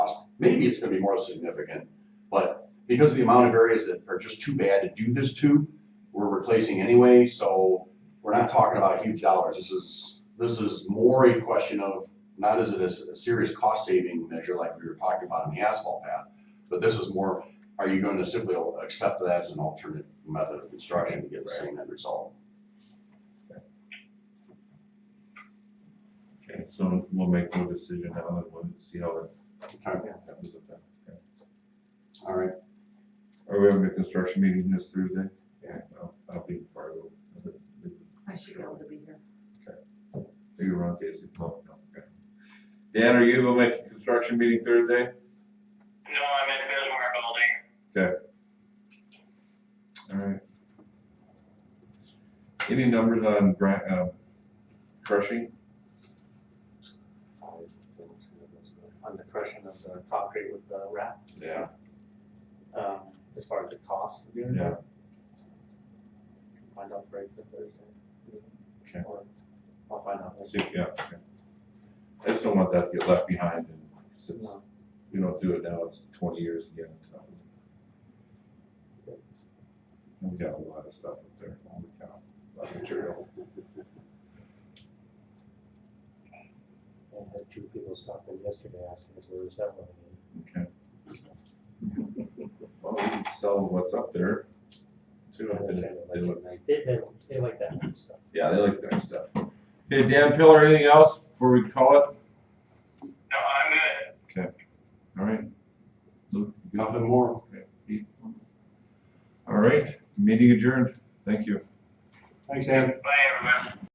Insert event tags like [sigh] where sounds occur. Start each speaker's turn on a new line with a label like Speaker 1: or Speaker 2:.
Speaker 1: cost. Maybe it's gonna be more significant, but because of the amount of areas that are just too bad to do this to, we're replacing anyway, so we're not talking about huge dollars. This is, this is more a question of, not as it is a serious cost saving measure like we were talking about on the asphalt path, but this is more, are you going to simply accept that as an alternate method of construction to get the same end result?
Speaker 2: Okay, so we'll make no decision now, and we'll see how that
Speaker 1: Okay,
Speaker 2: happens. with that. Okay.
Speaker 1: all right,
Speaker 2: Are we having a construction meeting this Thursday?
Speaker 3: Yeah.
Speaker 2: I'll, I'll be part of it.
Speaker 4: I should be able to be here.
Speaker 2: Are you around, Casey? No, no, okay. Dan, are you gonna make a construction meeting Thursday?
Speaker 5: No, I'm in Bismarck Building.
Speaker 2: Alright. Any numbers on gra- uh, crushing?
Speaker 3: On the crushing of the concrete with the wrap,
Speaker 2: Yeah.
Speaker 3: um, as far as the cost of doing
Speaker 2: Yeah.
Speaker 3: that. Find out right the Thursday.
Speaker 2: Okay.
Speaker 3: Or I'll find out.
Speaker 2: See, yeah, okay. I just don't want that to get left behind and since
Speaker 3: No.
Speaker 2: we don't do it now, it's twenty years again. on top of it. And We got a lot of stuff up there, holy cow, a lot of material.
Speaker 3: And had two people stop in yesterday asking if there was that one.
Speaker 2: Okay. [laughs] Well, we can sell what's up there. Too, I think they look
Speaker 3: They, they, they like that kind of stuff.
Speaker 2: Yeah, they like that stuff. Okay, Dan Pillar, anything else before we call it?
Speaker 5: No, I'm good.
Speaker 2: All right. Luke, you good?
Speaker 1: nothing more.
Speaker 2: All right, meeting adjourned. Thank you.
Speaker 1: Thanks, Dan.
Speaker 5: Bye, everyone.